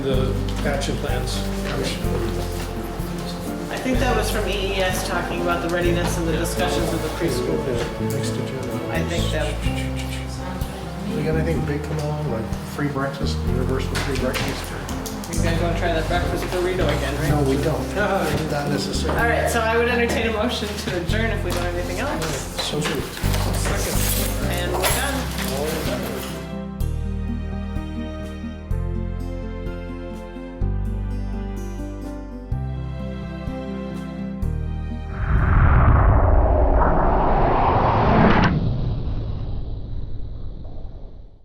the action plans. I think that was from EES talking about the readiness and the discussions with the preschool. Next agenda. I think that, We got anything big come along, like free breakfast, universal free breakfast? you guys want to try that breakfast burrito again, No, right? we don't. Not All necessary. right, so I would entertain a motion to adjourn if we don't have anything else. So true. And we're done.